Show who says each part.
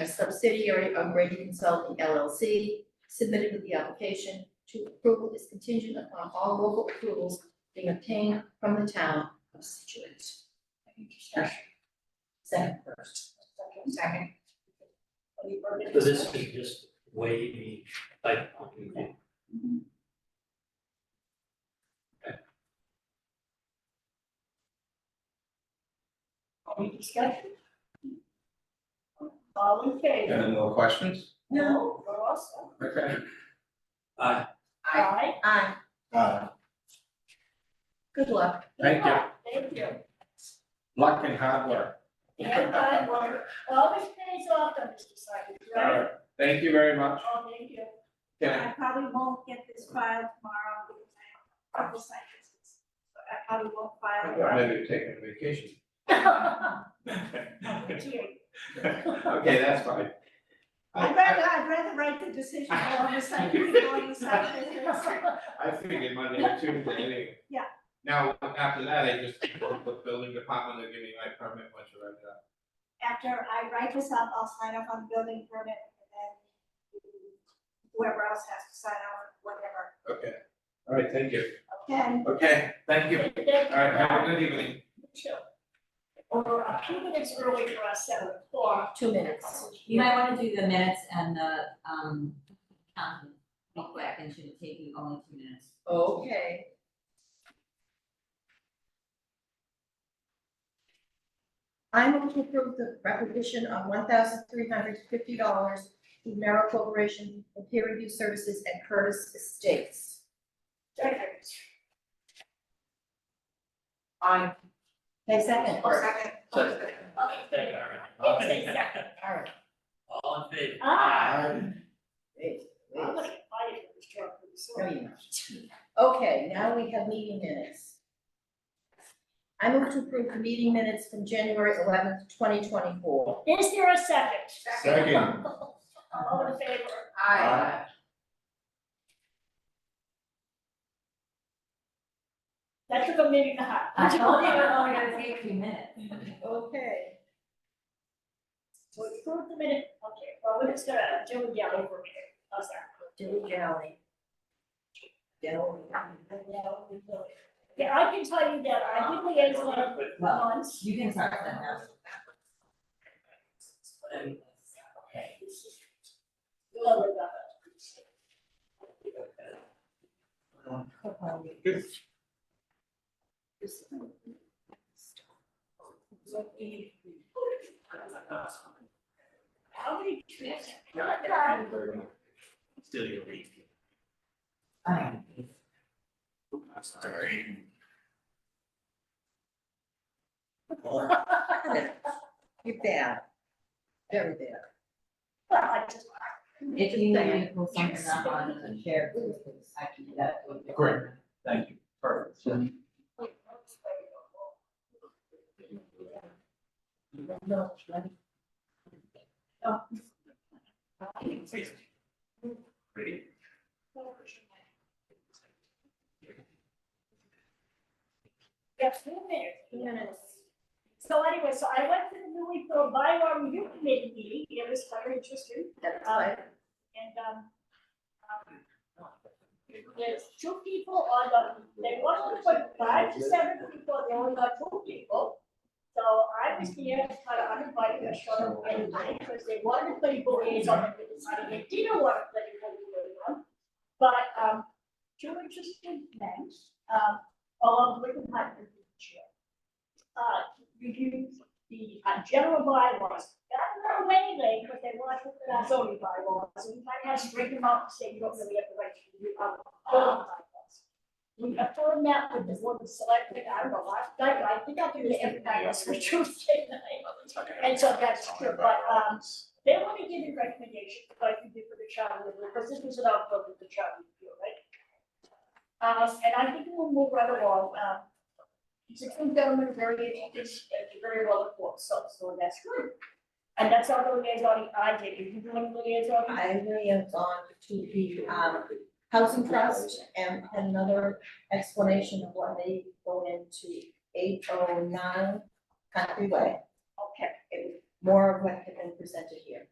Speaker 1: a subsidiary of Brady Consulting LLC, submitted with the application to approval is contingent upon all local approvals being obtained from the town of Situate. Any discussion? Second first. Second. Any further
Speaker 2: So this is just way the type of
Speaker 1: Any discussion? All in favor?
Speaker 3: Any more questions?
Speaker 1: No, we're awesome.
Speaker 3: Okay.
Speaker 2: Uh,
Speaker 1: Aye. Aye.
Speaker 3: Uh,
Speaker 1: Good luck.
Speaker 3: Thank you.
Speaker 4: Thank you.
Speaker 3: luck and hard work.
Speaker 4: And I work, always pays off on this society,
Speaker 3: All
Speaker 4: right?
Speaker 3: right, thank you very much.
Speaker 4: Oh, thank you.
Speaker 3: Can
Speaker 5: I probably won't get this filed tomorrow because I have a couple site visits, but I probably won't
Speaker 3: I,
Speaker 5: file it.
Speaker 3: yeah, maybe taking a vacation.
Speaker 4: Gee,
Speaker 3: Okay, that's fine.
Speaker 5: I'd rather, I'd rather write the decision on the site, before the site visits.
Speaker 3: I figured Monday or Tuesday anyway.
Speaker 5: Yeah.
Speaker 3: Now, after that, I just work with building department, they'll give me my permit once you write it up.
Speaker 5: After I write this up, I'll sign off on the building permit and then whoever else has to sign on, whatever,
Speaker 3: Okay, all right, thank you.
Speaker 5: okay?
Speaker 3: Okay, thank you.
Speaker 4: thank you.
Speaker 3: All right, have a good evening.
Speaker 4: Sure. Or a few minutes early for us, seven o'clock.
Speaker 1: Two minutes.
Speaker 6: You might wanna do the minutes and the, um, um, real quick, and should it take you only two minutes?
Speaker 1: Okay. I move to approve the requisition of one thousand three hundred fifty dollars to Merrill Corporation for peer review services at Curtis Estates.
Speaker 4: Second.
Speaker 1: Aye. Okay, second.
Speaker 4: Or
Speaker 5: second.
Speaker 2: Second.
Speaker 4: Okay, thank you.
Speaker 2: all
Speaker 4: It's a second.
Speaker 2: right.
Speaker 1: All right.
Speaker 2: All in favor?
Speaker 4: Ah,
Speaker 1: Wait, wait.
Speaker 4: I'm gonna get fired for this job, I'm
Speaker 1: No,
Speaker 4: sorry.
Speaker 1: you're not. Okay, now we have meeting minutes. I move to approve the meeting minutes from January eleventh, twenty twenty-four.
Speaker 4: Is there a second?
Speaker 3: Second.
Speaker 4: All in favor?
Speaker 3: Aye.
Speaker 4: That took a minute and a half.
Speaker 6: I told you it only gonna take two minutes.
Speaker 1: Okay.
Speaker 4: So we proved the minute, okay, well, we're just gonna do it down over a minute, how's that?
Speaker 1: Dilly dally. Dilly.
Speaker 4: Yeah, I can tell you that, I think we had one
Speaker 6: Well,
Speaker 4: once.
Speaker 6: you can start that now.
Speaker 4: Okay. Love it, love it.
Speaker 3: Good.
Speaker 4: How many trees?
Speaker 2: Still your lead.
Speaker 6: Um,
Speaker 3: Sorry.
Speaker 1: You're bad. Very bad.
Speaker 4: I just,
Speaker 6: If you need me to pull something up on the chair, please, I can do that.
Speaker 3: Great. Thank you. Perfect.
Speaker 1: No.
Speaker 2: Ready?
Speaker 4: yeah, two minutes.
Speaker 1: Two minutes.
Speaker 4: So anyway, so I went to the newly filled bylaw review committee meeting, it was very interesting.
Speaker 1: That's
Speaker 4: Um,
Speaker 1: fine.
Speaker 4: and, um, um, there's two people on the, they wanted to put five to seven people, they only got two people. So I was here, kind of uninvited, I showed up late, because they wanted to play board on the decided they didn't want to play board on. But, um, two interesting men, um, along with the Hunter chair. Uh, reviewed the uh, general bylaws, that went away late, but they were looking at our zoning bylaws, and we might have to bring them up, and say you don't really have the right to do our zoning bylaws. We affirmed that with the board of selectmen, I don't know, last night, I think I did it every night, that's for Tuesday night. And so that's true, but, um, they want to give you recommendations, like you did for the charter review, because this was an outgrowth of the charter review, right? Uh, and I think we'll move right along, um, it's a good government, very, it's very well informed, so, so that's good. And that's all the liaison I did, if you want to liaison, I
Speaker 1: I liaised on to the um housing trust and had another explanation of why they go into eight oh nine Country Way.
Speaker 4: okay.
Speaker 1: It was more of what had been presented here.